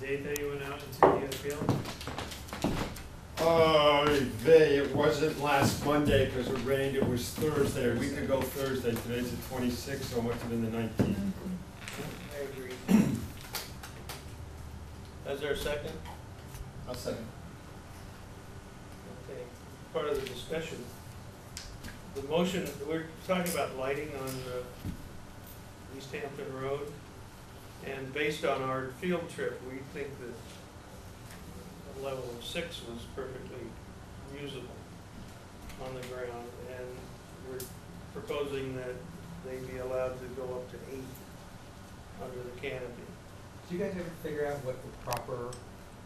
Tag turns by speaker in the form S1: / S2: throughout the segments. S1: date that you went out into the field?
S2: Oh, they, it wasn't last Monday because it rained, it was Thursday, a week ago Thursday, today's the twenty-sixth, so it must have been the nineteenth.
S3: I agree.
S4: Is there a second?
S5: I'll second.
S4: Okay, part of the discussion. The motion, we're talking about lighting on uh, East Hampton Road, and based on our field trip, we think that a level of six was perfectly usable on the ground, and we're proposing that they be allowed to go up to eight under the canopy.
S3: Did you guys ever figure out what the proper,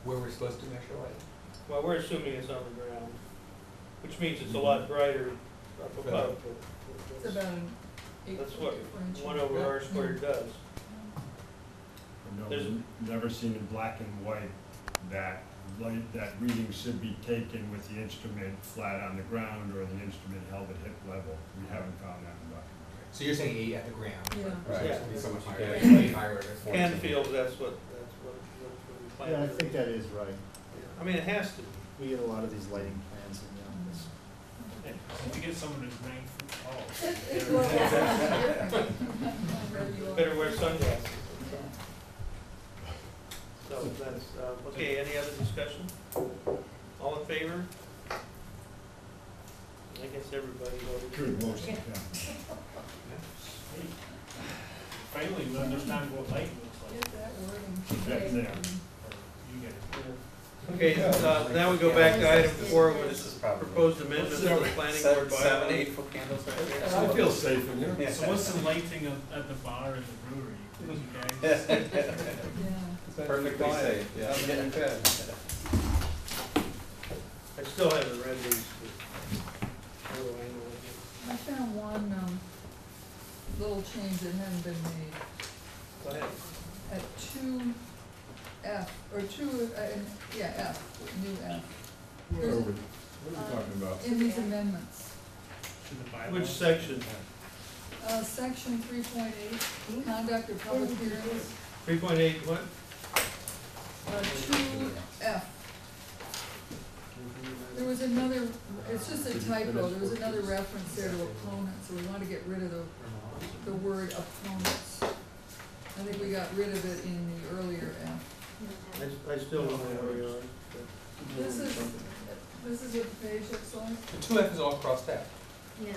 S3: where we're supposed to measure light?
S4: Well, we're assuming it's on the ground, which means it's a lot brighter up above. but
S6: It's
S4: that's-
S6: about an eight
S4: That's
S6: foot
S4: what
S6: differential.
S4: one oh- over R squared does.
S1: Mm-hmm.
S4: There's-
S2: Never seen in black and white that light, that reading should be taken with the instrument flat on the ground or the instrument held at hip level. We haven't found that in black and
S3: So you're saying eight at the ground?
S6: Yeah.
S5: Right.
S4: Yeah.
S3: It's so much higher,
S5: Yeah.
S3: way higher.
S4: Canfield, that's what, that's what, that's what we plan.
S5: Yeah, I
S4: to do.
S5: think that is right.
S4: Yeah. I mean, it has to. be.
S5: We get a lot of these lighting plans in the office.
S1: To Oh. get someone who's nine foot
S2: Oh.
S1: tall.
S4: Better wear sunglasses. So that's, uh, okay, any other discussion? All in favor? I guess everybody voted.
S2: white. Good motion, yeah.
S1: Finally, we understand what light looks like.
S6: Get that wording.
S2: That's there.
S1: You get it.
S4: Okay, uh, now we go back to item four, which is proposed amendments to the planning board bylaw.
S3: Seven, eight foot candles right there.
S2: I feel safe in here.
S1: So what's the lighting of, at the bar and the brewery? You guys-
S6: Yeah.
S3: Perfectly safe, yeah.
S4: I still haven't read these. but I will handle it.
S6: I found one, um, little change that hadn't been made.
S4: Go ahead.
S6: at two F, or two, uh, in- yeah, F, new F,
S2: What are we, what are we talking about?
S6: in these amendments.
S1: To the bylaws.
S4: Which section?
S6: Uh, section three point eight, conduct of public hearings,
S4: Three point eight what?
S6: uh, two F. There was another, it's just a typo, there was another reference there to opponent, so we want to get rid of the, the word opponents. I think we got rid of it in the earlier F.
S4: I, I still don't know where we are.
S6: This is, this is what the page looks like.
S3: The two F is all crossed out.
S7: Yeah,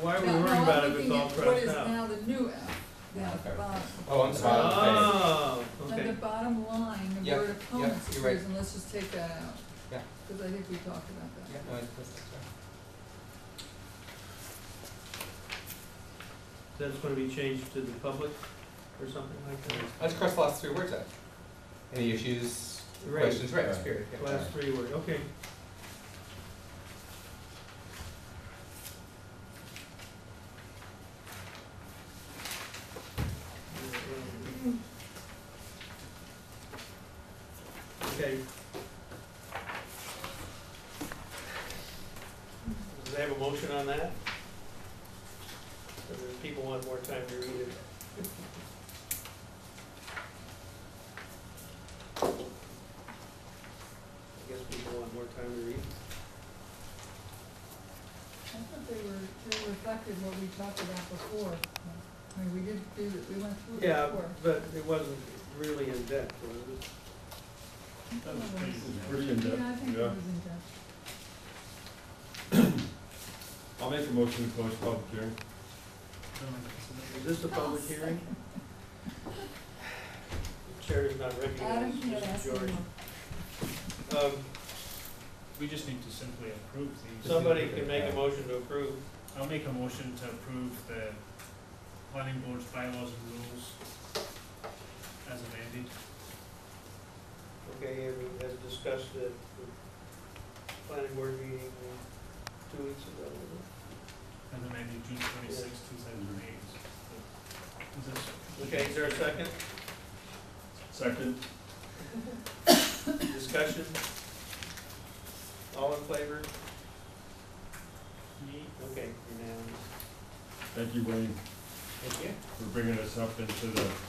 S4: Why are we
S6: Now- now
S4: worrying
S6: I'm
S4: about it if it's
S6: looking
S4: all
S6: at What
S4: crossed
S6: is
S4: out?
S6: now the new F, down at the bottom.
S3: Oh, I'm sorry.
S4: Oh,
S6: On the
S4: okay.
S6: bottom line, the
S3: Yeah,
S6: word
S3: yeah,
S6: opponents
S3: you're right.
S6: appears, and let's just take that out.
S3: Yeah.
S6: Because I think we talked about
S3: Yeah,
S6: that.
S3: no, it's- uh, it's- it's-
S4: That's gonna be changed to the public or something like that?
S3: Let's cross the last three words out. Any issues,
S4: Right,
S3: questions, right, period. yeah.
S4: last three word, okay. Okay. Do they have a motion on that? Or do people want more time to read it? I guess people want more time to read.
S6: I thought they were, they reflected what we talked about before. I mean, we did do, that. we went through it
S4: Yeah,
S6: before.
S4: but it wasn't really in depth, was it?
S1: That was pretty-
S2: It's pretty in
S6: Yeah, I
S2: depth,
S6: think it
S2: yeah.
S6: was in depth.
S2: I'll make a motion to close public hearing.
S4: Is this a public hearing? The Chair is not
S6: Adam,
S4: recognized,
S6: you gotta ask
S4: Mr.
S6: me
S4: George.
S6: more.
S4: Um,
S1: We just need to simply approve these.
S4: somebody can make a motion to approve.
S1: I'll make a motion to approve the planning board's bylaws and rules as amended.
S4: Okay, and we- as discussed at the planning board meeting uh, two weeks ago. was
S1: As amended June twenty-six, two thousand and eight. Is
S4: it?
S1: this?
S4: Okay, is there a second?
S2: Second?
S4: Discussion? All in favor?
S1: Me?
S4: Okay, unanimous.
S2: Thank you, Wayne,
S1: Thank you.
S2: for bringing us up into the